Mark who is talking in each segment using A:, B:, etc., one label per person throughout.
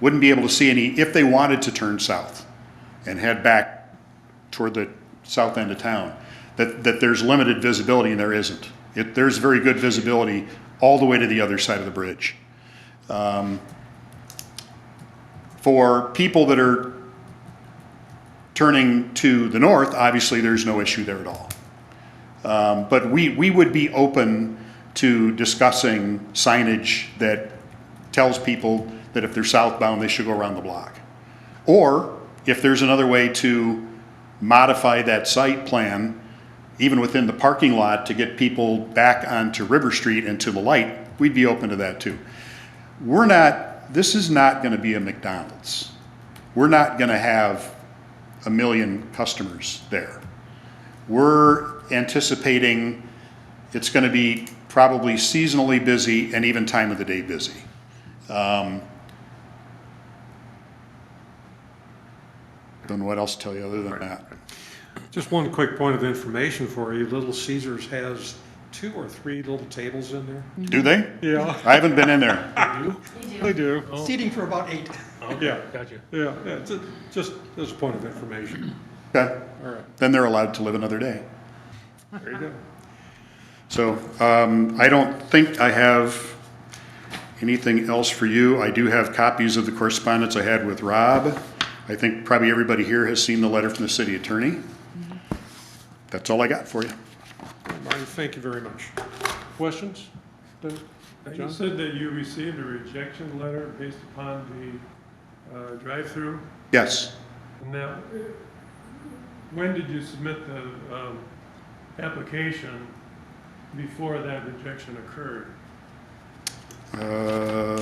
A: wouldn't be able to see any if they wanted to turn south and head back toward the south end of town, that, that there's limited visibility and there isn't. It, there's very good visibility all the way to the other side of the bridge. Um, For people that are turning to the north, obviously, there's no issue there at all. Um, But we, we would be open to discussing signage that tells people that if they're southbound, they should go around the block. Or if there's another way to modify that site plan, even within the parking lot, to get people back onto River Street and to the light, we'd be open to that too. We're not, this is not gonna be a McDonald's. We're not gonna have a million customers there. We're anticipating it's gonna be probably seasonally busy and even time of the day busy. Don't know what else to tell you other than that.
B: Just one quick point of information for you. Little Caesars has two or three little tables in there.
A: Do they?
B: Yeah,
A: I haven't been in there.
B: they do.
C: seating for about eight.
B: Yeah,
D: Gotcha.
B: yeah, yeah. Ju- Just as a point of information.
A: Okay.
B: All right,
A: Then they're allowed to live another day.
B: there you go.
A: So um, I don't think I have anything else for you. I do have copies of the correspondence I had with Rob. I think probably everybody here has seen the letter from the city attorney.
B: Mm-hmm.
A: That's all I got for you.
B: Marty, thank you very much. Questions? Dave?
E: You
B: John?
E: said that you received a rejection letter based upon the uh, drive-through,
A: Yes,
E: and that, when did you submit the um, application before that rejection occurred?
A: Uh,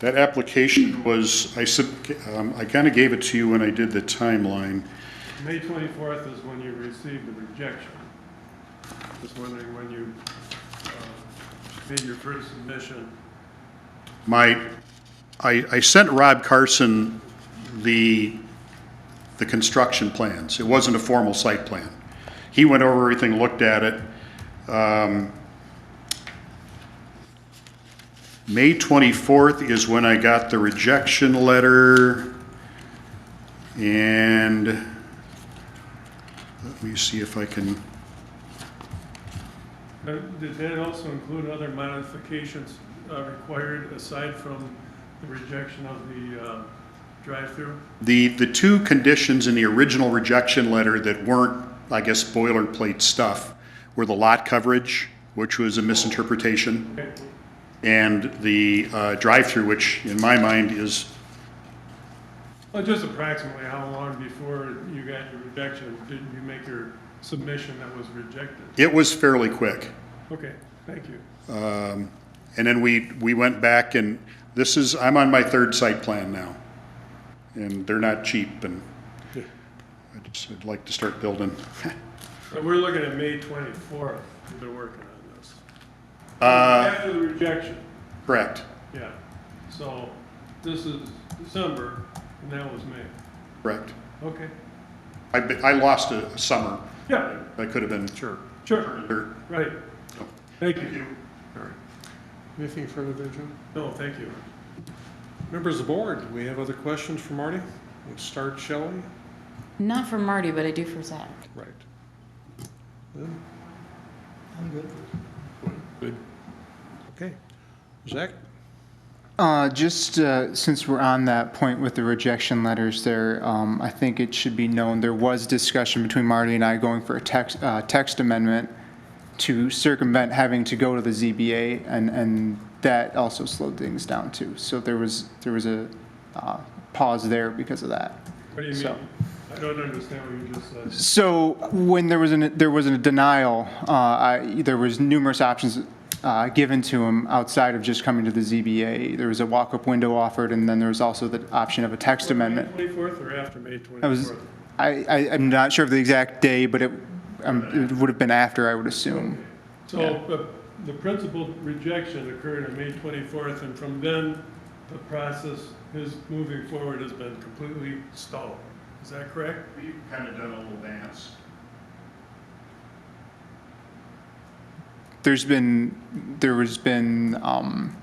A: That application was, I sub, um, I kind of gave it to you when I did the timeline.
E: May 24th is when you received the rejection. Just wondering when you uh, made your first submission.
A: My, I, I sent Rob Carson the, the construction plans. It wasn't a formal site plan. He went over everything, looked at it. Um, May 24th is when I got the rejection letter. And let me see if I can,
E: Uh, Did that also include other modifications uh, required aside from the rejection of the uh, drive-through?
A: the, the two conditions in the original rejection letter that weren't, I guess, boilerplate stuff were the lot coverage, which was a misinterpretation,
E: Okay.
A: and the uh, drive-through, which in my mind is,
E: Well, just approximately how long before you got your rejection did you make your submission that was rejected?
A: it was fairly quick. Um,
E: Okay, thank you.
A: And then we, we went back and this is, I'm on my third site plan now. And they're not cheap and I just, I'd like to start building.
E: So we're looking at May 24th, we've been working on this.
A: Uh,
E: After the rejection,
A: correct,
E: yeah. So this is December, and that was May.
A: correct.
E: Okay,
A: I, be- I lost a summer.
E: yeah,
A: I could have been. Sure.
E: sure, right. Thank you.
B: All right. Anything further there, John?
E: No, thank you.
B: Members of the board, do we have other questions for Marty? Let's start, shall we?
F: Not for Marty, but I do for Zach.
B: Right.
C: I'm good.
B: Good. Okay. Zach?
G: Uh, just uh, since we're on that point with the rejection letters there, um, I think it should be known there was discussion between Marty and I going for a text, uh, text amendment to circumvent having to go to the ZBA, and, and that also slowed things down too. So there was, there was a uh, pause there because of that.
E: What do you
G: So-
E: mean? I don't understand what you just said.
G: So when there was an, there was a denial, uh, I, there was numerous options uh, given to him outside of just coming to the ZBA. There was a walk-up window offered, and then there was also the option of a text amendment.
E: May 24th or after May
G: I was,
E: 24th?
G: I, I, I'm not sure of the exact day, but it, um, it would have been after, I would assume.
E: So uh, the- the principal rejection occurred on May 24th, and from then, the process, his moving forward has been completely stalled. Is that correct?
A: We've kind of done a little dance.
G: There's been, there has been, um,